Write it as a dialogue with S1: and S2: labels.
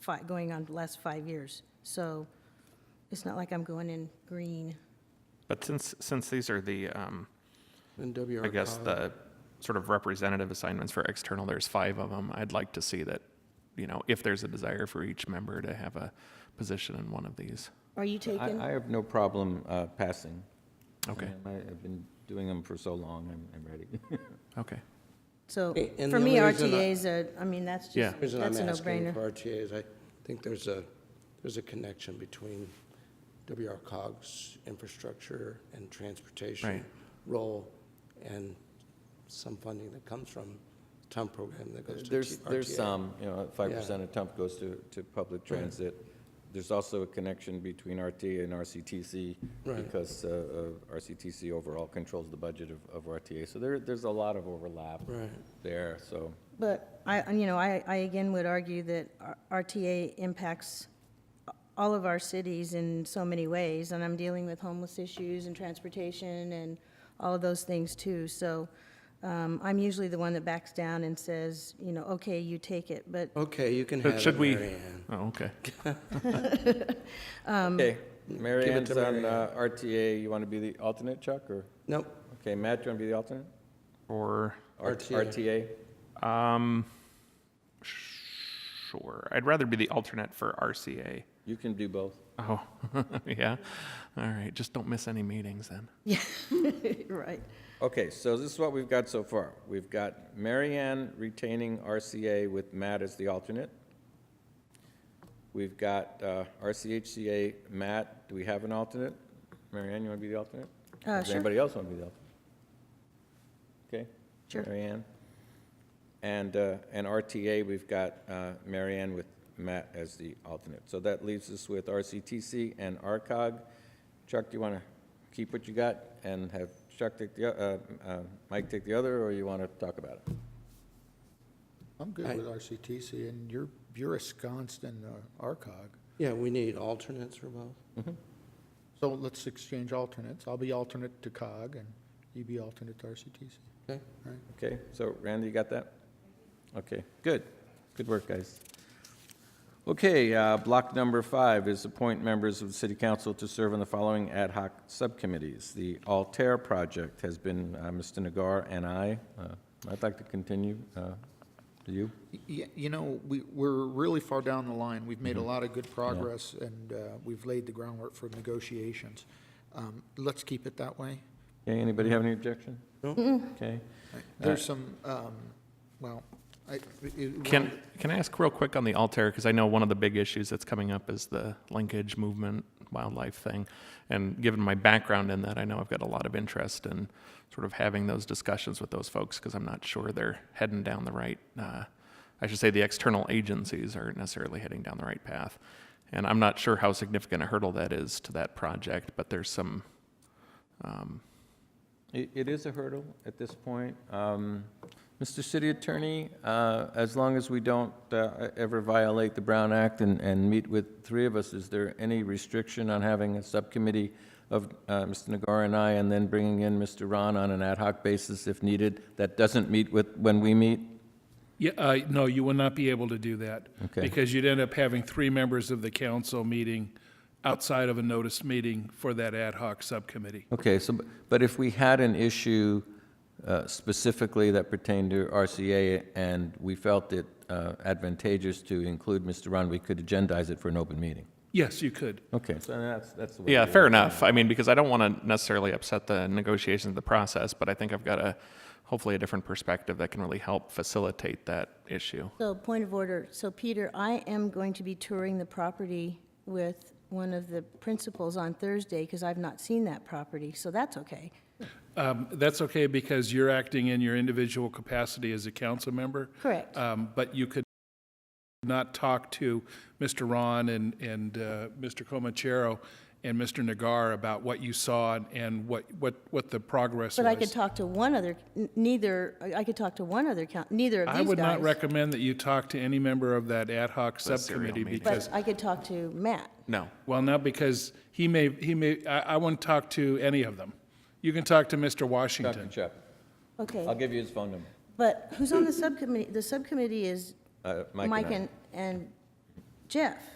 S1: five, going on the last five years. So it's not like I'm going in green.
S2: But since, since these are the, um,
S3: And WR.
S2: I guess the sort of representative assignments for external, there's five of them. I'd like to see that, you know, if there's a desire for each member to have a position in one of these.
S1: Are you
S4: I, I
S1: taking?
S4: have no problem uh, passing.
S2: Okay.
S4: Um, I- I've been doing them for so long, I'm, I'm ready.
S2: Okay.
S1: So
S3: And the
S1: for me,
S3: only reason I-
S1: RTAs are, I mean, that's
S2: Yeah.
S1: just,
S3: The Reason I'm
S1: that's a
S3: asking
S1: no-brainer.
S3: for RTA is I think there's a, there's a connection between WR cog's infrastructure and transportation
S2: Right.
S3: role and some funding that comes from TUM program that goes to
S4: There's,
S3: T-
S4: there's
S3: RTA.
S4: some, you know, five percent of TUMP goes to, to public transit. There's also a connection between RT and RCTC
S3: Right.
S4: because uh, uh, RCTC overall controls the budget of, of RTA. So there, there's a lot of overlap
S3: Right.
S4: there, so.
S1: But I, and, you know, I, I again would argue that R- RTA impacts all of our cities in so many ways, and I'm dealing with homeless issues and transportation and all of those things too. So um, I'm usually the one that backs down and says, you know, okay, you take it, but
S3: Okay, you can
S2: But
S3: have
S2: should
S3: it,
S2: we-
S3: Mary Ann.
S2: Oh, okay.
S4: Okay, Mary
S3: give it
S4: Ann's
S3: to Mary
S4: on uh, RTA, you want to be the alternate, Chuck, or?
S3: Nope,
S4: Okay, Matt, you want to be the alternate?
S2: Or,
S4: R-
S3: RTA.
S4: RTA?
S2: um, sure. I'd rather be the alternate for RCA.
S4: You can do both.
S2: Oh, yeah? All right, just don't miss any meetings then.
S1: right.
S4: Okay, so this is what we've got so far. We've got Mary Ann retaining RCA with Matt as the alternate. We've got uh, RCHCA, Matt, do we have an alternate? Mary Ann, you want to be the alternate?
S1: Uh,
S4: Does
S1: sure.
S4: anybody else want to be the alternate? Okay?
S1: Sure.
S4: Mary Ann. And, uh, and RTA, we've got uh, Mary Ann with Matt as the alternate. So that leaves us with RCTC and RCOG. Chuck, do you want to keep what you got and have Chuck take the, o- uh, uh, Mike take the other, or you want to talk about it?
S5: I'm good
S3: Right.
S5: with RCTC, and you're, you're ensconced in uh, ARCOG.
S3: yeah, we need alternates for both.
S5: So let's exchange alternates. I'll be alternate to COG, and you be alternate to RCTC.
S3: Okay.
S5: All right.
S4: Okay, so Randy, you got that? Okay, good. Good work, guys. Okay, uh, block number five is appoint members of the city council to serve on the following ad hoc subcommittees. The Altair project has been uh, Mr. Nagar and I. Uh, I'd like to continue. uh, Do you?
S5: Y- You know, we, we're really far down the line. We've made a lot of good progress, and uh, we've laid the groundwork for negotiations. Um, Let's keep it that way.
S4: Okay, anybody have any objection?
S3: No.
S4: Okay.
S5: Uh, There's some, um, well, I. it-
S2: Can, can I ask real quick on the Altair? Because I know one of the big issues that's coming up is the linkage movement wildlife thing. And given my background in that, I know I've got a lot of interest in sort of having those discussions with those folks because I'm not sure they're heading down the right, uh, I should say the external agencies aren't necessarily heading down the right path. And I'm not sure how significant a hurdle that is to that project, but there's some, um,
S4: It, it is a hurdle at this point. Um, Mr. City Attorney, uh, as long as we don't uh, ever violate the Brown Act and, and meet with three of us, is there any restriction on having a subcommittee of uh, Mr. Nagar and I, and then bringing in Mr. Ron on an ad hoc basis if needed, that doesn't meet with, when we meet?
S6: Yeah, uh, no, you will not be able to do that.
S4: Okay.
S6: Because you'd end up having three members of the council meeting outside of a notice meeting for that ad hoc subcommittee.
S4: Okay, so, bu- but if we had an issue uh, specifically that pertained to RCA and we felt it uh, advantageous to include Mr. Ron, we could agendize it for an open meeting?
S6: Yes, you could.
S4: Okay, so that's, that's the way.
S2: Yeah,
S4: to do
S2: fair
S4: it.
S2: enough. I mean, because I don't want to necessarily upset the negotiations of the process, but I think I've got a, hopefully a different perspective that can really help facilitate that issue.
S1: So, point of order. So, Peter, I am going to be touring the property with one of the principals on Thursday because I've not seen that property, so that's okay.
S6: Um, That's okay, because you're acting in your individual capacity as a council member.
S1: Correct.
S6: Um, But you could not talk to Mr. Ron and, and uh, Mr. Comachero and Mr. Nagar about what you saw and what, what, what the progress was.
S1: But I could talk to one other, n- neither, I I could talk to one other, coun- neither of these
S6: I
S1: guys.
S6: would not recommend that you talk to any member of that ad hoc
S2: serial
S6: subcommittee
S2: meeting.
S6: because
S1: But I could talk to Matt.
S2: No.
S6: Well, no, because he may, he may, I, I won't talk to any of them. You can talk to Mr.
S4: Dr.
S6: Washington.
S4: Chuck, I'll
S1: Okay,
S4: give you his phone number.
S1: but who's on the subcommittee? The subcommittee is
S4: Uh,
S1: Mike
S4: I.
S1: and, and Jeff?